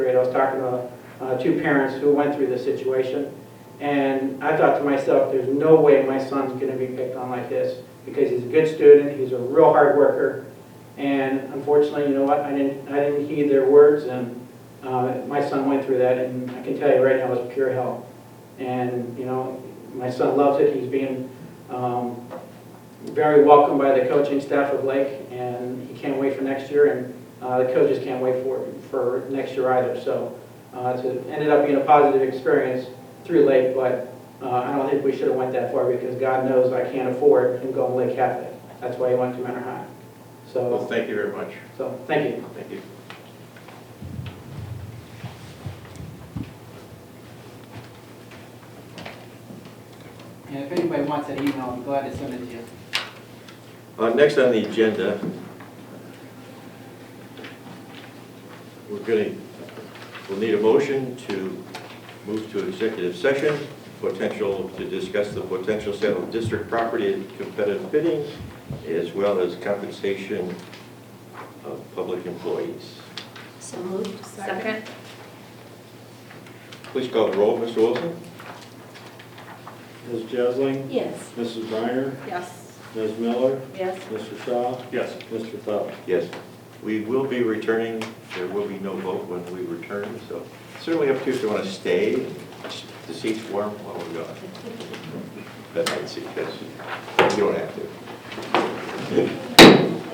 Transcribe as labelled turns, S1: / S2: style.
S1: I was talking to uh, two parents who went through this situation, and I thought to myself, there's no way my son's going to be picked on like this, because he's a good student, he's a real hard worker, and unfortunately, you know what, I didn't, I didn't heed their words, and uh, my son went through that, and I can tell you right now, it's pure hell. And, you know, my son loves it, he's being um, very welcomed by the coaching staff of Lake, and he can't wait for next year, and uh, the coaches can't wait for, for next year either. So uh, it's- it ended up being a positive experience through Lake, but uh, I don't think we should have went that far because God knows I can't afford him going to Lake Catholic. That's why he went to Manor High.
S2: Well,
S1: So,
S2: thank you very much.
S1: so, thank you.
S2: Thank you.
S3: And if anybody wants that email, I'm glad to send it to you.
S2: Uh, Next on the agenda, we're going to, we'll need a motion to move to executive session, potential, to discuss the potential sale of district property at competitive bidding, as well as compensation of public employees.
S4: So moved. Second.
S2: Please call the roll, Mr. Wilson.
S5: Ms. Jesling,
S4: Yes.
S5: Mrs. Briner,
S4: Yes.
S5: Ms. Miller,
S4: Yes.
S5: Mr. Shaw. Yes. Mr. Feldman.
S2: Yes, we will be returning, there will be no vote when we return, so certainly up to you if you want to stay, the seat's warm while we're gone. That might seat, yes, you don't have to.